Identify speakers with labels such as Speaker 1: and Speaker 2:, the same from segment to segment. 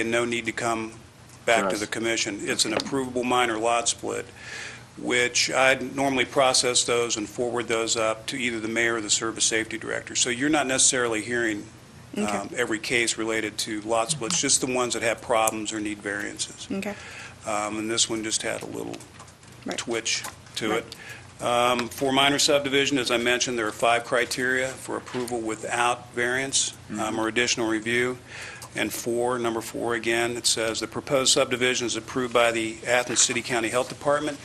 Speaker 1: and no need to come back to
Speaker 2: Right.
Speaker 1: the commission. It's an approvable minor lot split, which I normally process those and forward those up to either the mayor or the service safety director. So you're not necessarily hearing
Speaker 3: Okay,
Speaker 1: um, every case related to lot splits, just the ones that have problems or need variances.
Speaker 3: okay,
Speaker 1: Um, And this one just had a little
Speaker 3: Right.
Speaker 1: twitch to
Speaker 3: Right.
Speaker 1: it. Um, For minor subdivision, as I mentioned, there are five criteria for approval without variance um, or additional review. And four, number four again, it says the proposed subdivision is approved by the Athens City County Health Department.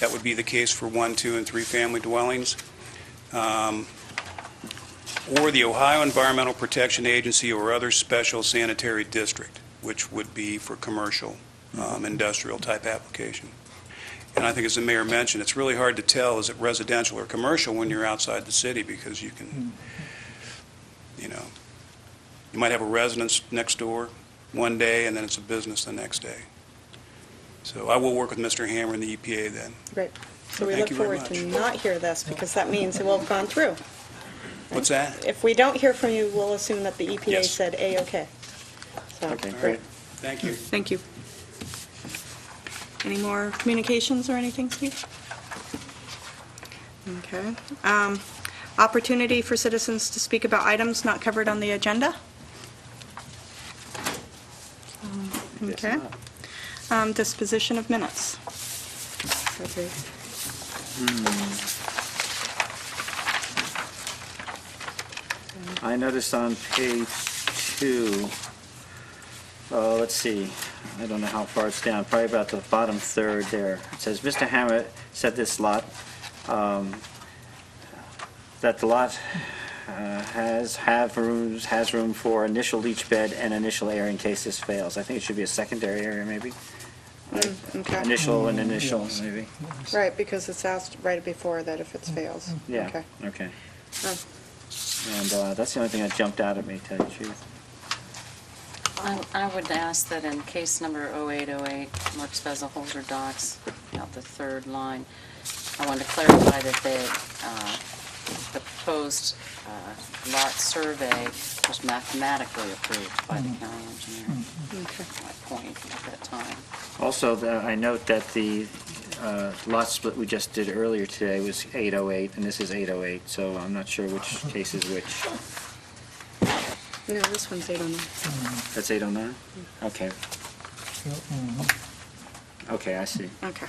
Speaker 1: That would be the case for one, two, and three-family dwellings. Um, Or the Ohio Environmental Protection Agency or other special sanitary district, which would be for commercial um, industrial-type application. And I think, as the mayor mentioned, it's really hard to tell, is it residential or commercial when you're outside the city, because you can, you know, you might have a residence next door one day, and then it's a business the next day. So I will work with Mr. Hammer and the EPA then.
Speaker 3: great. So we
Speaker 1: Thank
Speaker 3: look
Speaker 1: you very
Speaker 3: forward to not hear this, because that means it will have gone through.
Speaker 1: What's that?
Speaker 3: If we don't hear from you, we'll assume that the EPA
Speaker 1: Yes.
Speaker 3: said A-OK. So,
Speaker 2: Okay,
Speaker 1: great.
Speaker 2: great.
Speaker 1: Thank you.
Speaker 3: Thank you. Any more communications or anything, Steve? Okay. Um, Opportunity for citizens to speak about items not covered on the agenda?
Speaker 2: Yes,
Speaker 3: Okay.
Speaker 2: ma'am.
Speaker 3: Um, Disposition of minutes? Okay.
Speaker 2: I noticed on page two, uh, let's see, I don't know how far it's down, probably about the bottom third there. It says, "Mr. Hammett said this lot, um, that the lot uh, has, have rooms, has room for initial leach bed and initial air in case this fails." I think it should be a secondary area, maybe?
Speaker 3: Okay.
Speaker 2: Initial and initial, maybe?
Speaker 3: Right, because it's asked right before that if it fails.
Speaker 2: Yeah,
Speaker 3: Okay.
Speaker 2: okay.
Speaker 3: Oh.
Speaker 2: And uh, that's the only thing that jumped out at me, to tell you the truth.
Speaker 4: I I would ask that in case number 0808, Mark Spezza Holzer Docs, out the third line, I want to clarify that the, uh, the proposed uh, lot survey was mathematically approved by the county engineer,
Speaker 3: Okay.
Speaker 4: my point at that time.
Speaker 2: Also, the- I note that the uh, lot split we just did earlier today was 808, and this is 808, so I'm not sure which case is which.
Speaker 3: No, this one's 809.
Speaker 2: That's 809? Okay, okay, I see.
Speaker 3: Okay.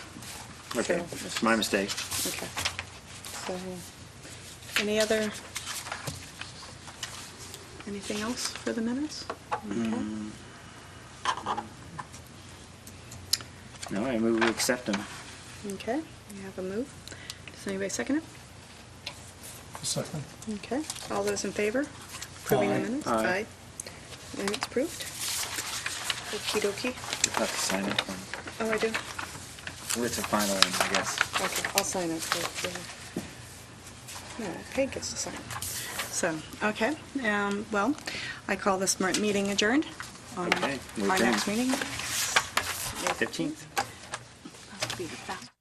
Speaker 2: Okay, it's my mistake.
Speaker 3: Okay. So, any other, anything else for the minutes?
Speaker 2: Mm.
Speaker 3: Okay.
Speaker 2: No, I move we accept them.
Speaker 3: Okay, we have a move. Does anybody second it?
Speaker 5: Second.
Speaker 3: Okay, all those in favor? Approving the
Speaker 5: Aye.
Speaker 3: minutes?
Speaker 2: Aye.
Speaker 3: And it's approved. Okey dokey.
Speaker 2: We'll have to sign it. one.
Speaker 3: Oh, I do?
Speaker 2: Well, It's a final one, I guess.
Speaker 3: Okay, I'll sign it. for- for- No, Peg gets to sign. So, okay, um, well, I call this mer- meeting adjourned. Um,
Speaker 2: Okay, we're
Speaker 3: Our next
Speaker 2: done.
Speaker 3: meeting.
Speaker 2: 15th.
Speaker 3: Must be the fast-